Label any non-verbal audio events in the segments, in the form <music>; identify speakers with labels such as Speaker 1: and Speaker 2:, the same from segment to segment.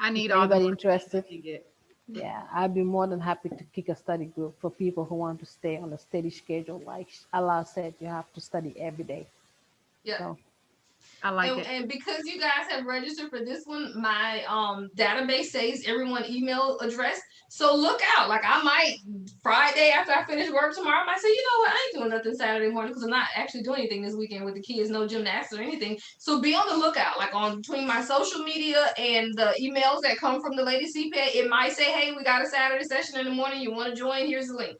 Speaker 1: I need all the.
Speaker 2: Anybody
Speaker 1: work I
Speaker 2: interested?
Speaker 1: can get.
Speaker 2: Yeah, I'd be more than happy to kick a study group for people who want to stay on a steady schedule. Like Allah said, you have to study every day.
Speaker 3: Yeah.
Speaker 2: So-
Speaker 1: I like
Speaker 3: And,
Speaker 1: it.
Speaker 3: and because you guys have registered for this one, my um database saves everyone email address. So look out. Like I might Friday after I finish work tomorrow, I might say, you know what, I ain't doing nothing Saturday morning because I'm not actually doing anything this weekend with the kids, no gymnastics or anything. So be on the lookout. Like on between my social media and the emails that come from the lady CPA, it might say, hey, we got a Saturday session in the morning. You want to join? Here's the link.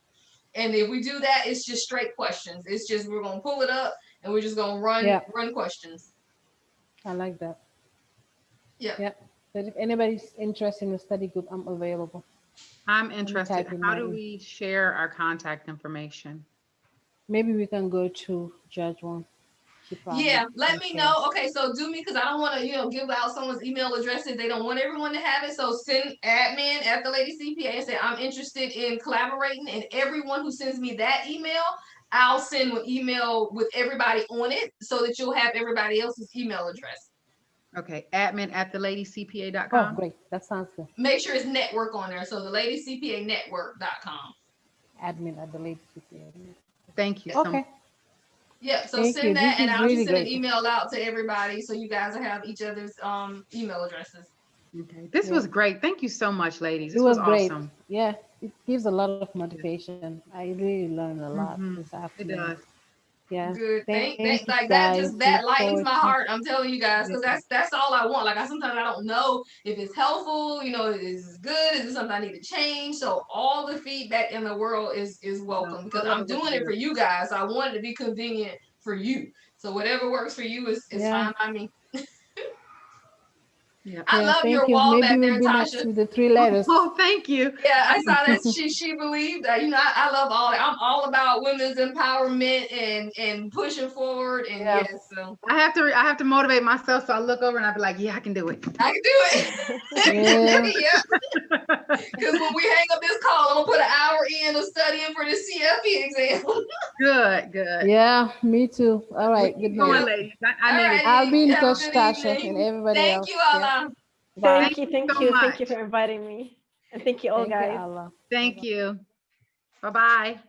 Speaker 3: And if we do that, it's just straight questions. It's just we're gonna pull it up and we're just gonna run
Speaker 2: Yeah.
Speaker 3: run questions.
Speaker 2: I like that.
Speaker 3: Yeah.
Speaker 2: Yep. But if anybody's interested in a study group, I'm available.
Speaker 1: I'm
Speaker 2: type
Speaker 1: interested.
Speaker 2: in
Speaker 1: How
Speaker 2: my
Speaker 1: do
Speaker 2: e-
Speaker 1: we share our contact information?
Speaker 2: Maybe we can go to Judge one. She probably
Speaker 3: Yeah, let
Speaker 2: can
Speaker 3: me
Speaker 2: share.
Speaker 3: know. Okay, so do me because I don't want to, you know, give out someone's email address if they don't want everyone to have it. So send admin at the lady CPA and say I'm interested in collaborating, and everyone who sends me that email, I'll send an email with everybody on it so that you'll have everybody else's email address.
Speaker 1: Okay, admin at the
Speaker 2: Oh,
Speaker 1: ladycpa.com.
Speaker 2: great. That sounds good.
Speaker 3: Make sure it's network on there. So the lady CPA network.com.
Speaker 2: Admin at the lady.
Speaker 1: Thank you so much.
Speaker 2: Okay.
Speaker 3: Yeah, so
Speaker 2: Thank
Speaker 3: send
Speaker 2: you.
Speaker 3: that
Speaker 2: This
Speaker 3: and
Speaker 2: is
Speaker 3: I'll
Speaker 2: really
Speaker 3: just send an
Speaker 2: great.
Speaker 3: email out to everybody so you guys will have each other's um email addresses.
Speaker 1: Okay, this
Speaker 2: Yeah.
Speaker 1: was great. Thank you so much, ladies.
Speaker 2: It
Speaker 1: This was
Speaker 2: was great.
Speaker 1: awesome.
Speaker 2: Yeah, it gives a lot of motivation. I really learned a lot
Speaker 3: Mm-hmm.
Speaker 1: Mhm.
Speaker 2: this
Speaker 1: It
Speaker 2: afternoon.
Speaker 1: does.
Speaker 2: Yeah.
Speaker 3: Good. Thank,
Speaker 2: Thank
Speaker 3: thank,
Speaker 2: you,
Speaker 3: like that
Speaker 2: guys.
Speaker 3: just that
Speaker 2: Look
Speaker 3: lightens
Speaker 2: forward
Speaker 3: my
Speaker 2: to-
Speaker 3: heart. I'm telling you guys, because
Speaker 1: Yeah.
Speaker 3: that's that's all I want. Like I sometimes I don't know if it's helpful, you know, is it good, is it something I need to change? So all the feedback in the world is is welcome because
Speaker 1: whatever
Speaker 3: I'm doing it
Speaker 1: works.
Speaker 3: for you guys. I want it to be convenient for you. So whatever works for you is, is
Speaker 2: Yeah.
Speaker 3: fine by me. <laughs>
Speaker 1: Yeah.
Speaker 3: I
Speaker 2: Yeah,
Speaker 3: love
Speaker 2: thank
Speaker 3: your
Speaker 2: you.
Speaker 3: wall
Speaker 2: Maybe
Speaker 3: back
Speaker 2: we'll
Speaker 3: there,
Speaker 2: be next
Speaker 3: Tasha.
Speaker 2: with the three
Speaker 3: <laughs>
Speaker 2: letters.
Speaker 1: Oh, <laughs> thank you.
Speaker 3: Yeah, I saw
Speaker 2: <laughs>
Speaker 3: that she she believed that. You know, I, I love all. I'm all about women's empowerment and and pushing forward. And
Speaker 2: Yeah.
Speaker 3: yes, so
Speaker 1: I have to, I have to motivate myself. So I look over and I be like, yeah, I can do it.
Speaker 3: I can <laughs> do
Speaker 2: Yeah.
Speaker 3: it. yeah. Because when we hang up this call, I'm gonna put an hour in of studying for the CFE exam.
Speaker 1: Good, good.
Speaker 2: Yeah, me too. All right. Good
Speaker 1: Come on,
Speaker 2: night.
Speaker 1: ladies. I, I need
Speaker 3: Alright.
Speaker 1: it.
Speaker 2: I'll be in
Speaker 3: Have a
Speaker 2: touch,
Speaker 3: good
Speaker 2: Tasha,
Speaker 3: evening.
Speaker 2: and everybody else.
Speaker 3: Thank you,
Speaker 2: Yeah.
Speaker 3: Allah.
Speaker 1: Bye.
Speaker 4: Thank you, thank
Speaker 1: so
Speaker 4: you, thank you
Speaker 1: much.
Speaker 4: for inviting me. And thank you all,
Speaker 2: Thank you,
Speaker 4: guys.
Speaker 2: Allah.
Speaker 1: Thank you. Bye-bye.